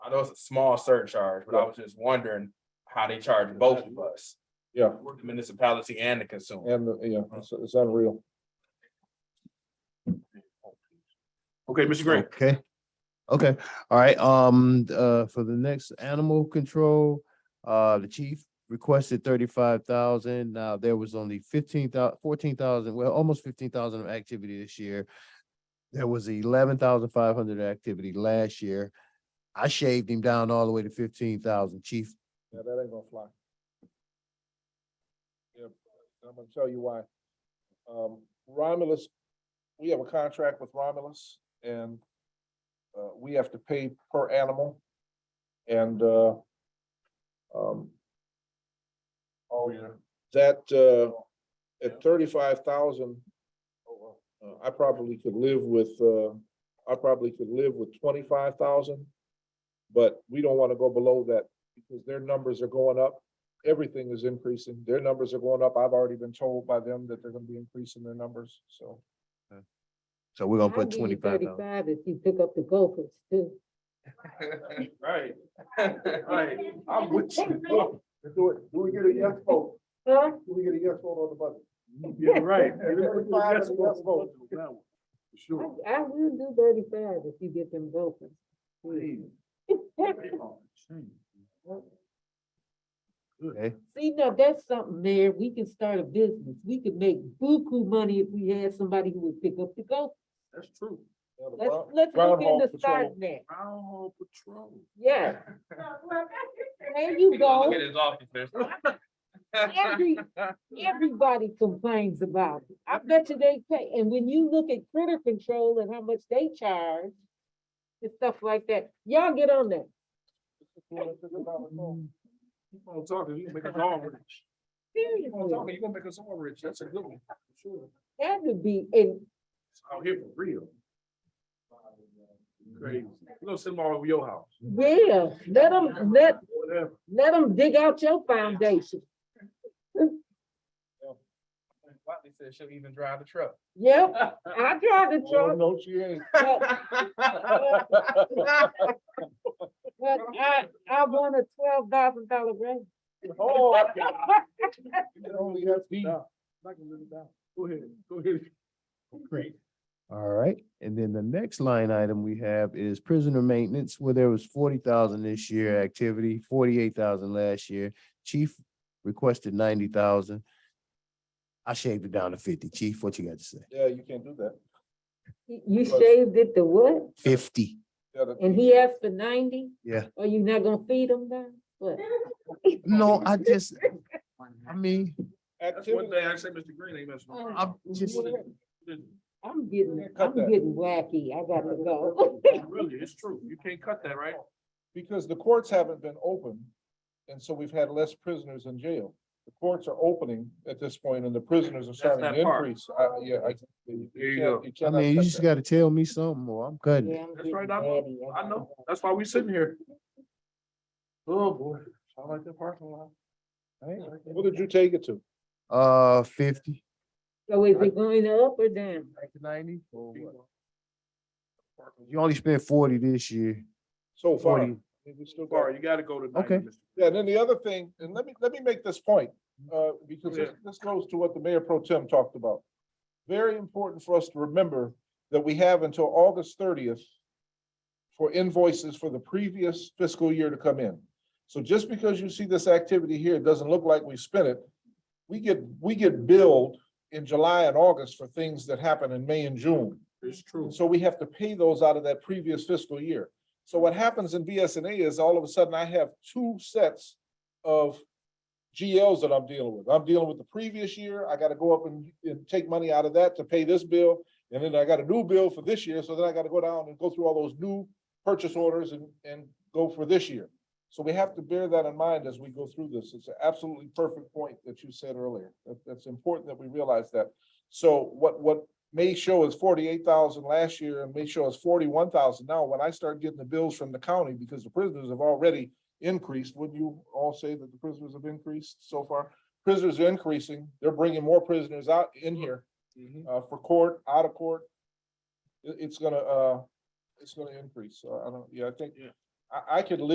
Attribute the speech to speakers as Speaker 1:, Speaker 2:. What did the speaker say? Speaker 1: know it's a small surcharge, but I was just wondering how they charge both of us.
Speaker 2: Yeah.
Speaker 1: The municipality and the consumer.
Speaker 2: And, yeah, it's, it's unreal.
Speaker 1: Okay, Mr. Green.
Speaker 3: Okay. Okay, all right, um, uh, for the next animal control, uh, the chief requested thirty-five thousand. Now, there was only fifteen thou- fourteen thousand, well, almost fifteen thousand of activity this year. There was eleven thousand five hundred activity last year. I shaved him down all the way to fifteen thousand, chief.
Speaker 2: Yeah, that ain't gonna fly. Yeah, I'm gonna tell you why. Um, Romulus, we have a contract with Romulus and uh, we have to pay per animal and uh, um, oh, yeah, that uh, at thirty-five thousand, Oh, uh, I probably could live with, uh, I probably could live with twenty-five thousand. But we don't wanna go below that because their numbers are going up. Everything is increasing. Their numbers are going up. I've already been told by them that they're gonna be increasing their numbers, so.
Speaker 3: So we're gonna
Speaker 4: I'll
Speaker 3: put
Speaker 4: give you
Speaker 3: twenty-five thousand.
Speaker 4: Thirty-five if you pick up the gophers too.
Speaker 1: Right. Right. I'm with you.
Speaker 2: Do it, do we get a yes vote?
Speaker 4: Huh?
Speaker 2: Do we get a yes vote on the budget?
Speaker 5: Yeah, right.
Speaker 2: Mm, Everybody gets a yes vote.
Speaker 4: I, I will do thirty-five if you get them gophers.
Speaker 3: Okay,
Speaker 4: See, now that's something, Mayor, we can start a business. We could make buku money if we had somebody who would pick up the gophers.
Speaker 5: That's true.
Speaker 2: Yeah, the
Speaker 4: Let's,
Speaker 2: Bron-
Speaker 4: let's look
Speaker 2: Groundhog
Speaker 4: into
Speaker 2: Patrol.
Speaker 4: starting that.
Speaker 5: Brown Hall Patrol.
Speaker 4: Yeah. There you go.
Speaker 1: Look at his office, there's-
Speaker 4: Every, everybody complains about it. I bet you they pay. And when you look at critter control and how much they charge and stuff like that, y'all get on that.
Speaker 5: Keep on talking, you can make us all rich. Keep on
Speaker 4: Seriously,
Speaker 5: talking, you gonna make us all rich. That's a good one. Sure.
Speaker 4: that would be, and
Speaker 5: It's out here for real. Crazy. We're gonna send them all over your house.
Speaker 4: yeah, let them, let,
Speaker 5: Whatever.
Speaker 4: let them dig out your foundation.
Speaker 1: Watley said she'll even drive the truck.
Speaker 4: Yep, I tried to
Speaker 2: Well,
Speaker 4: truck,
Speaker 2: No, she ain't.
Speaker 4: but, but I, I won a twelve thousand dollar raise.
Speaker 2: Oh, I can- you can only have to stop.
Speaker 5: Knock them really down. Go ahead, go ahead.
Speaker 3: all right, and then the next line item we have is prisoner maintenance, where there was forty thousand this year activity, forty-eight thousand last year. Chief requested ninety thousand. I shaved it down to fifty. Chief, what you got to say?
Speaker 2: Yeah, you can't do that.
Speaker 4: You shaved it to what?
Speaker 3: Fifty.
Speaker 2: Yeah, the-
Speaker 4: And he asked for ninety?
Speaker 3: Yeah.
Speaker 4: Are you not gonna feed him now? What?
Speaker 3: No, I just, I mean,
Speaker 5: That's one
Speaker 2: Activity,
Speaker 5: thing I say, Mr. Green ain't messing with.
Speaker 3: I'm just,
Speaker 4: I'm getting,
Speaker 2: Cut
Speaker 4: I'm
Speaker 2: that.
Speaker 4: getting wacky. I gotta go.
Speaker 5: Really, it's true. You can't cut that, right?
Speaker 2: because the courts haven't been open, and so we've had less prisoners in jail. The courts are opening at this point, and the prisoners are starting
Speaker 5: that
Speaker 2: to
Speaker 5: part.
Speaker 2: increase. I- Yeah, I. you
Speaker 5: There you
Speaker 2: can't-
Speaker 5: go.
Speaker 3: I
Speaker 2: cannot
Speaker 3: mean, you
Speaker 2: cut
Speaker 3: just
Speaker 2: that.
Speaker 3: gotta tell me something or I'm cutting it.
Speaker 4: Yeah, I'm
Speaker 5: That's
Speaker 4: getting
Speaker 5: right, I know.
Speaker 4: batty.
Speaker 5: I know. That's why we sitting here. Oh, boy. I like that parking lot. I ain't like that.
Speaker 2: What did you take it to?
Speaker 3: Uh, fifty.
Speaker 4: So is it going up or down?
Speaker 3: Back to ninety?
Speaker 5: Parking
Speaker 3: You only spent forty this year.
Speaker 2: So far. I
Speaker 3: 40.
Speaker 2: think we still
Speaker 5: Bar,
Speaker 2: got-
Speaker 5: you gotta go to.
Speaker 3: Okay.
Speaker 5: 90, Mr.
Speaker 2: Yeah, and then the other thing, and let me, let me make this point, uh, because this, this goes to what the mayor pro tem talked about. Very important for us to remember that we have until August thirtieth for invoices for the previous fiscal year to come in. So just because you see this activity here, it doesn't look like we spent it. We get, we get billed in July and August for things that happen in May and June.
Speaker 5: It's true.
Speaker 2: And so we have to pay those out of that previous fiscal year. So what happens in BSNA is all of a sudden I have two sets of GLs that I'm dealing with. I'm dealing with the previous year. I gotta go up and, and take money out of that to pay this bill. And then I got a new bill for this year, so then I gotta go down and go through all those new purchase orders and, and go for this year. So we have to bear that in mind as we go through this. It's an absolutely perfect point that you said earlier. That, that's important that we realize that. So what, what may show as forty-eight thousand last year and may show as forty-one thousand now, when I start getting the bills from the county, because the prisoners have already increased, wouldn't you all say that the prisoners have increased so far? Prisoners are increasing, they're bringing more prisoners out in here,
Speaker 1: Mm-hmm.
Speaker 2: uh, for court, out of court. It- it's gonna, uh, it's gonna increase, so I don't, yeah, I think,
Speaker 5: Yeah.
Speaker 2: I, I could live